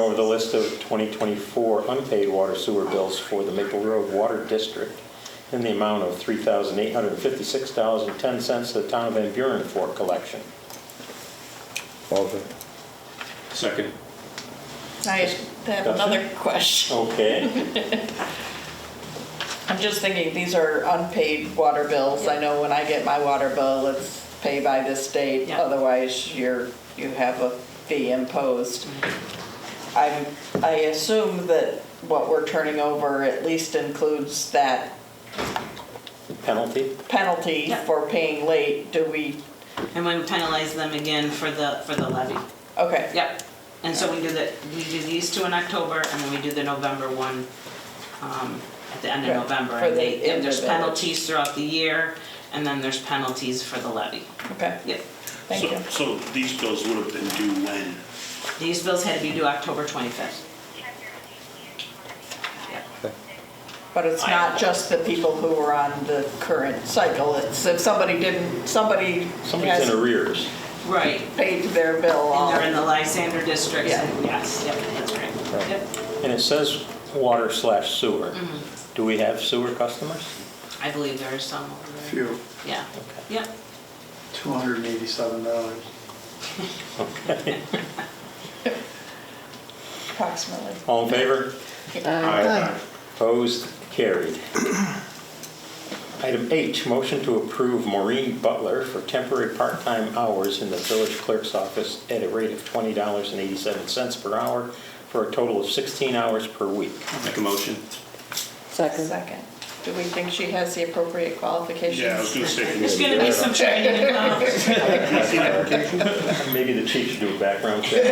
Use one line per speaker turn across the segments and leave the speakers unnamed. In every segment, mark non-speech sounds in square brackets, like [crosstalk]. over the list of 2024 unpaid water sewer bills for the Maple Road Water District in the amount of $3,856.10 to the town of Van Buren for collection.
Motion.
Second.
I have another question.
Okay,
I'm just thinking, these are unpaid water bills. I know when I get my water bill, it's pay by this date,
Yeah.
otherwise you're, you have a fee imposed. I, I assume that what we're turning over at least includes that
penalty?
penalty
Yeah.
for paying late. Do we,
And we penalize them again for the, for the levy.
okay.
Yep. And so we do the, we do these two in October, and then we do the November one um, at the end of
Right,
November.
for
And
the
they-
end of
and there's
the-
penalties throughout the year, and then there's penalties for the levy.
Okay,
Yep.
thank
So-
you.
So these bills would have been due when?
These bills had to be due October 25th. Yep.
But it's not just the people who are on the current cycle. It's if somebody didn't, somebody
Somebody's in
has
arrears.
Right.
paid their bill all.
And they're in the Lysander districts,
Yeah.
and yes, yep, that's right. Yep.
And it says water slash sewer. Do we have sewer customers?
I believe there are some over there.
Few,
Yeah, yep.
$287.
Approximately.
All in favor?
Aye.
Opposed? Carried. [clears throat] Item H, motion to approve Maureen Butler for temporary part-time hours in the village clerk's office at a rate of $20.87 per hour for a total of 16 hours per week. [laughs]
Make a motion.
Second.
Second. Do we think she has the appropriate qualifications?
Yeah, I was gonna say.
There's gonna
[laughs]
be some training involved.
Maybe the chief should do a background check.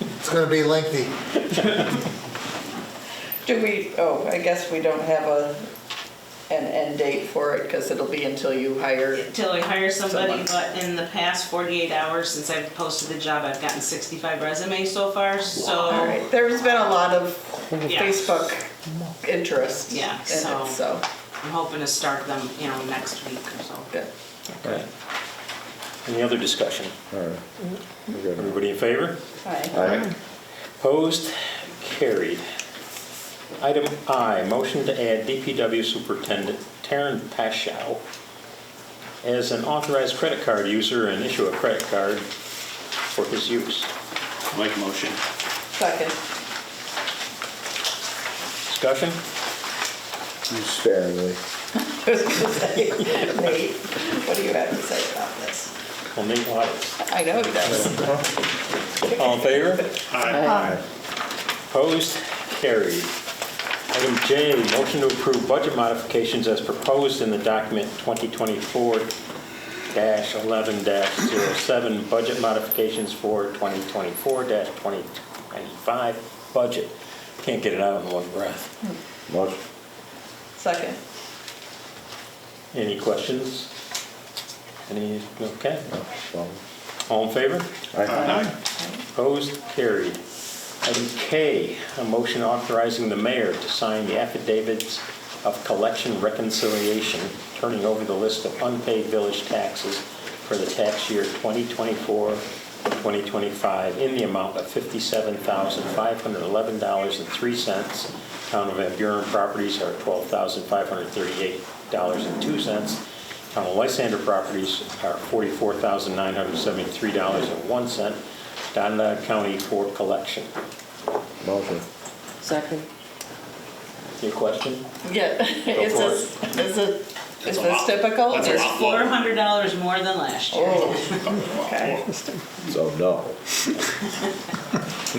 It's gonna be lengthy.
Do we, oh, I guess we don't have a, an end date for it because it'll be until you hire.
Till we hire somebody,
Someone.
but in the past 48 hours since I've posted the job, I've gotten 65 resumes so far,
All right,
so,
there's been a lot of
Yeah.
Facebook interest in
Yeah,
it,
so-
so,
I'm hoping to start them, you know, next week or so.
good.
Any other discussion?
All right. We're good.
Everybody in favor?
Aye.
All right.
Opposed? Carried. Item I, motion to add DPW Superintendent Taryn Paschow as an authorized credit card user and issue a credit card for his use.
Make a motion.
Second.
Discussion?
I
Sparingly.
was gonna say, Nate, what do you have to say about this?
Well, Nate Waters.
I know he does.
All in favor?
Aye.
Opposed? Carried. Item J, motion to approve budget modifications as proposed in the document 2024-11-07, budget modifications for 2024-2025 budget. Can't get it out in one breath.
Motion.
Second.
Any questions? Any, okay.
Well,
All in favor?
Aye.
Opposed? Carried. Item K, a motion authorizing the mayor to sign the affidavits of collection reconciliation, turning over the list of unpaid village taxes for the tax year 2024-2025 in the amount of $57,511.03. Town of Van Buren properties are $12,538.02. Town of Lysander properties are $44,973.01. Donna County for collection.
Motion.
Second.
Your question?
Yeah, [laughs] is
for
this, is it, is
That's a
this
lot.
typical?
That's a
or-
lot.
$400 more than last
[laughs]
year.
Oh,
[laughs]
okay.
So no.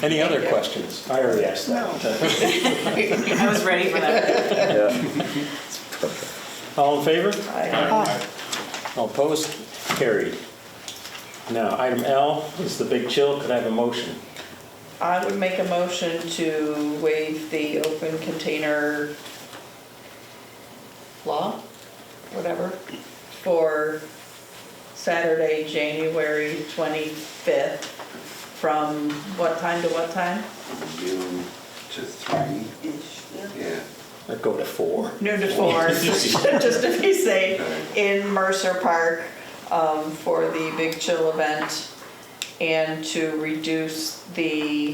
Any other questions? I already asked that.
I was ready for that.
Yeah.
All in favor?
Aye.
All opposed? Carried. Now, item L is the big chill. Could I have a motion?
I would make a motion to waive the open container law, whatever, for Saturday, January 25th, from what time to what time?
noon to three. Yeah.
Or go to four?
Noon to four, [laughs] just to be safe, in Mercer Park um, for the Big Chill event, and to reduce the